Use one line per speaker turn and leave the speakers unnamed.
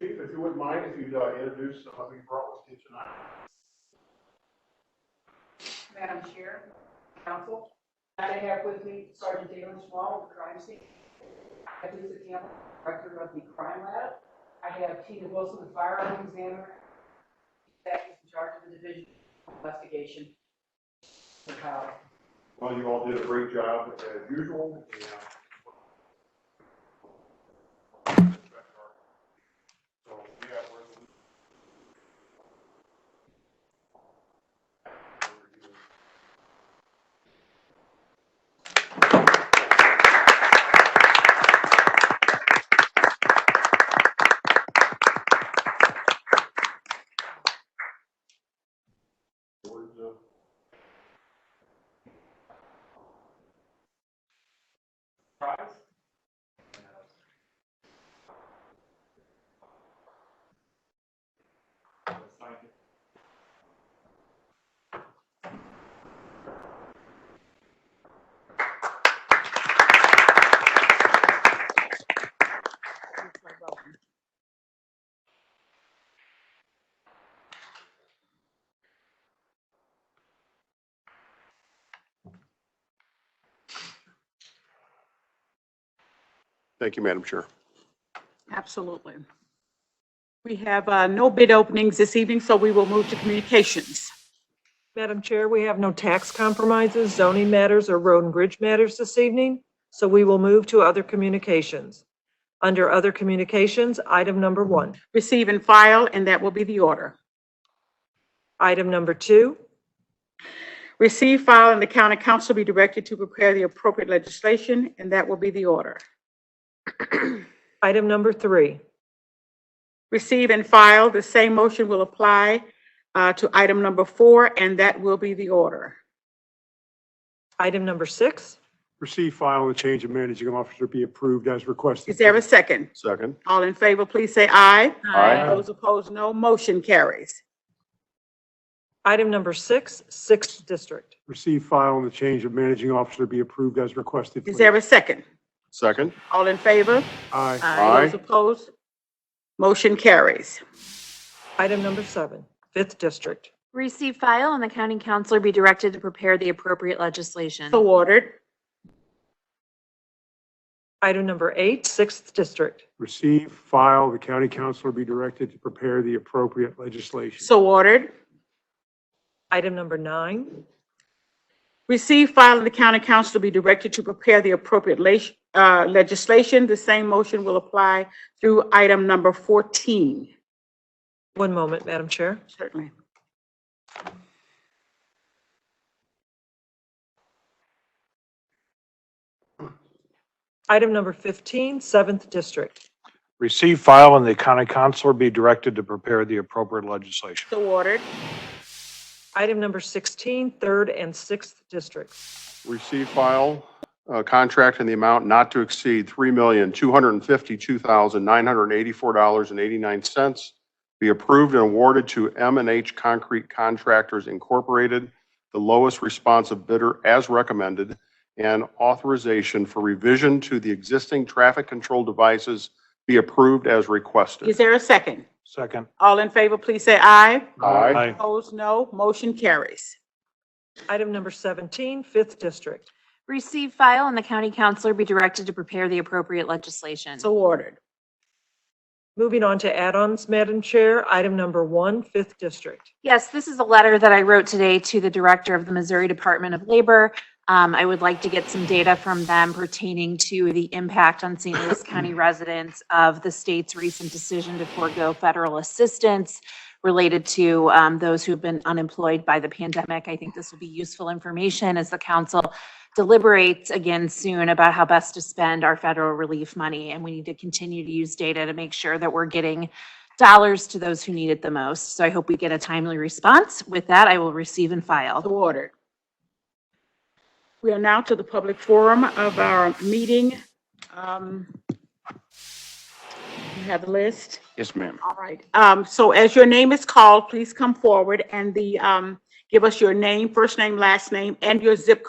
if you wouldn't mind, if you'd uh, introduce uh, who you brought with you tonight.
Madam Chair, Council, I have with me Sergeant Dalen Schwall of the crime scene. I have Lisa Campbell, Director of the Crime Lab. I have Tina Wilson, the Firearm Examiner, that is in charge of the Division of Investigation. for how-
Well, you all did a great job as usual, and. uh, So, we have resolution. Board, uh, prize.
Thank you, Madam Chair.
Absolutely. We have uh, no bid openings this evening, so we will move to communications.
Madam Chair, we have no tax compromises, zoning matters, or road and bridge matters this evening, so we will move to other communications. Under other communications, item number one.
Receive and file, and that will be the order.
Item number two.
Receive, file, and the county council be directed to prepare the appropriate legislation, and that will be the order.
Item number three.
Receive and file, the same motion will apply uh, to item number four, and that will be the order.
Item number six.
Receive, file, and the change of managing officer be approved as requested.
Is there a second?
Second.
All in favor, please say aye.
Aye.
Those opposed, no. Motion carries.
Item number six, sixth district.
Receive, file, and the change of managing officer be approved as requested.
Is there a second?
Second.
All in favor?
Aye.
Aye.
Those opposed? Motion carries.
Item number seven, fifth district.
Receive file and the county councilor be directed to prepare the appropriate legislation.
So ordered.
Item number eight, sixth district.
Receive, file, the county councilor be directed to prepare the appropriate legislation.
So ordered.
Item number nine.
Receive, file, and the county council will be directed to prepare the appropriate leg- uh, legislation. The same motion will apply through item number 14.
One moment, Madam Chair.
Certainly.
Item number 15, seventh district.
Receive, file, and the county counselor be directed to prepare the appropriate legislation.
So ordered.
Item number 16, third and sixth districts.
Receive, file, uh, contract in the amount not to exceed $3,252,984.89 be approved and awarded to m and H Concrete Contractors Incorporated, the lowest responsive bidder as recommended, and authorization for revision to the existing traffic control devices be approved as
Is
requested.
there a second?
Second.
All in favor, please say aye.
Aye.
Opposed, no. Motion carries.
Item number 17, fifth district.
Receive file and the county councilor be directed to prepare the appropriate legislation.
So ordered.
Moving on to add-ons, Madam Chair, item number one, fifth district.
Yes, this is a letter that I wrote today to the director of the Missouri Department of Labor. Um, I would like to get some data from them pertaining to the impact on St. Louis County residents of the state's recent decision to forego federal assistance related to, um, those who've been unemployed by the pandemic. I think this will be useful information as the council deliberates again soon about how best to spend our federal relief money. And we need to continue to use data to make sure that we're getting dollars to those who need it the most. So I hope we get a timely response. With that, I will receive and
So
file.
ordered. We are now to the public forum of our meeting. Um, You have the list?
Yes, ma'am.
All right. Um, So as your name is called, please come forward and the, um, give us your name, first name, last name, and your zip code.